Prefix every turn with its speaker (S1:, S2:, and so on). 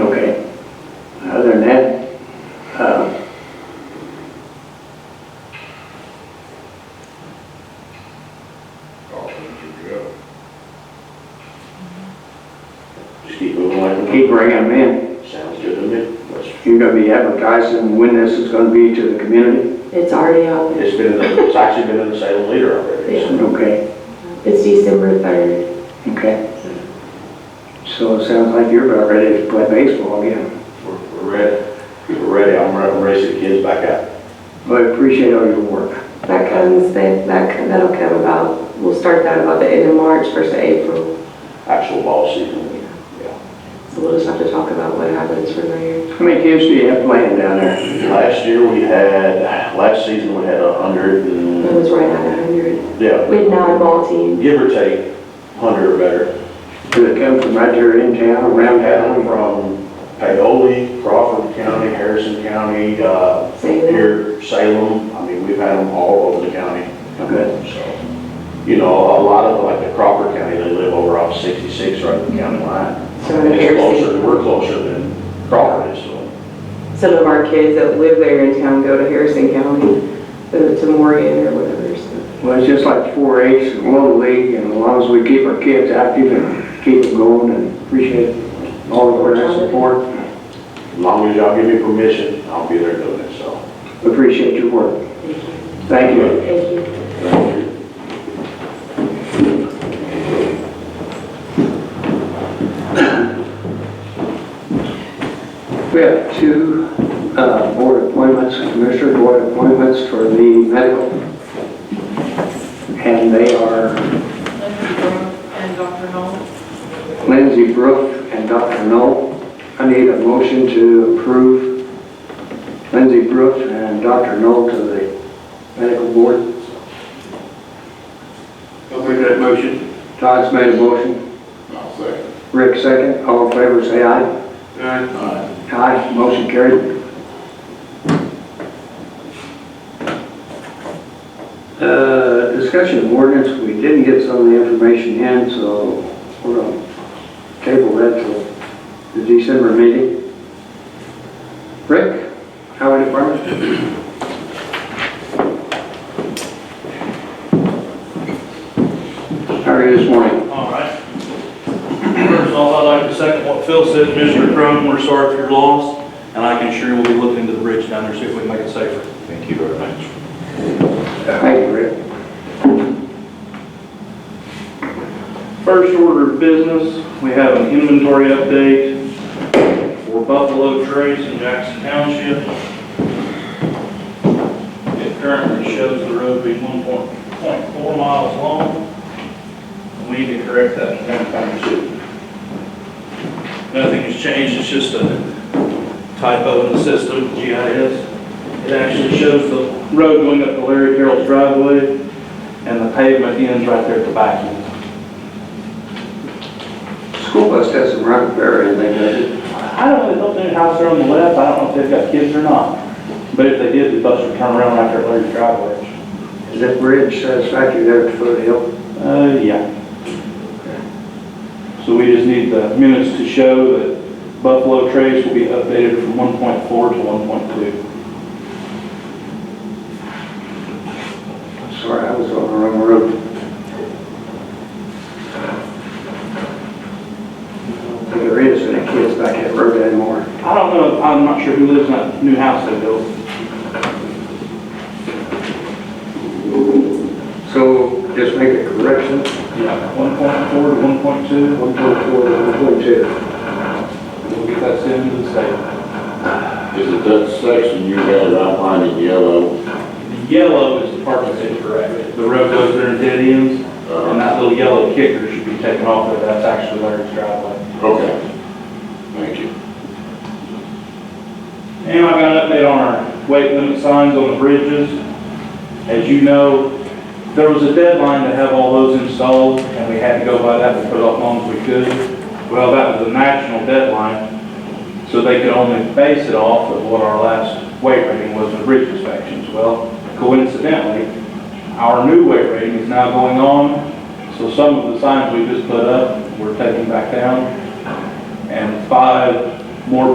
S1: uh,
S2: Oh, legitimate question.
S1: You're gonna be advertising when this is gonna be to the community?
S3: It's already out there.
S2: It's been, in the- it's actually been in the Salem Leader already. so.
S1: Okay,
S3: It's December 3rd.
S1: okay. So it sounds like you're about ready to play baseball again.
S2: We're we're ready, we're ready, I'm ready to race the kids back out.
S1: Well, I appreciate all your work.
S3: That comes, that, that- that'll come about, we'll start that about the end of March, first of April.
S2: Actual ball season,
S3: So we'll just have to talk about what happens from there.
S1: How many kids do you have playing down there?
S2: Last year we had, last season we had a hundred
S3: It
S2: and,
S3: was right at 100.
S2: yeah,
S3: We had nine ball teams.
S2: give or take, hundred or better.
S1: Do they come from right there in town, around
S2: We had them
S1: town?
S2: from Paoli, Crawford County, Harrison County, uh,
S3: Salem.
S2: here, Salem, I mean, we've had them all over the county.
S1: Good.
S2: So, you know, a lot of, like the Crawford County, they live over off sixty-six, right at the county line.
S3: So in
S2: It's closer,
S3: Harrison.
S2: we're closer than Crawford is, so.
S3: Some of our kids that live there in town go to Harrison County, uh, to Morgan or whatever, so.
S1: Well, it's just like 4H and Little League, and as long as we keep our kids active and keep them going, and appreciate all of our support.
S2: As long as y'all give me permission, I'll be there doing it, so.
S1: Appreciate your work. Thank you.
S3: Thank you.
S1: We have two uh, board appointments, commissioner board appointments for the medical. And they are
S4: And Dr. Noel,
S1: Lindsay Brook and Dr. Knoll. I need a motion to approve Lindsay Brook and Dr. Knoll to the medical board.
S5: I'll make that motion.
S1: Todd's made a motion.
S5: I'll second.
S1: Rick second. All in favor, say aye.
S5: Aye.
S1: Aye, motion carried. Uh, Discussion of ordinance, we didn't get some of the information in, so we're going to table that till the December meeting. Rick, Highway Department? How are you this morning?
S6: All right. First of all, I'd like to second what Phil said, Mr. Crum, we're sorry for your loss, and I can sure we'll be looking into the bridge down there, see if we can make it safer.
S2: Thank you very much.
S1: Thank you, Rick.
S6: First order of business, we have an inventory update for Buffalo Trace in Jackson Township. It currently shows the road being one point, point four miles long. We need to correct that in Grant Township. Nothing has changed, it's just a typo in the system, GIS. It actually shows the road going up to Larry Carroll's driveway, and the pavement ends right there at the back end.
S1: School bus doesn't run fair or anything, does it?
S6: I don't really know if their house are on the left, I don't know if they've got kids or not, but if they did, the bus would turn around right there at Larry's driveway.
S1: Is that bridge satisfactory there at the foot of the hill?
S6: Uh, yeah. So we just need the minutes to show that Buffalo Trace will be updated from one point four to one point two.
S1: Sorry, I was on the wrong road. There is any kids back that road anymore.
S6: I don't know, I'm not sure who lives in that new house they built.
S1: So just make a correction,
S6: Yeah. One point four to one point two,
S1: 1.4 to 1.2.
S6: we'll get that sent to the state.
S5: Is it that section you had outlined in yellow?
S6: The yellow is the part that's incorrect, the road goes there and dead ends, And
S5: Uh,
S6: that little yellow kicker should be taken off there, that's actually Larry's
S2: Oh,
S6: driveway.
S5: Okay. Thank you.
S6: And I got an update on our weight limit signs on the bridges. As you know, there was a deadline to have all those installed, and we had to go by that, we put it off as long as we could. Well, that was a national deadline, so they could only base it off of what our last weight rating was in bridge inspections. Well, coincidentally, our new weight rating is now going on, so some of the signs we just put up, we're taking back down. And five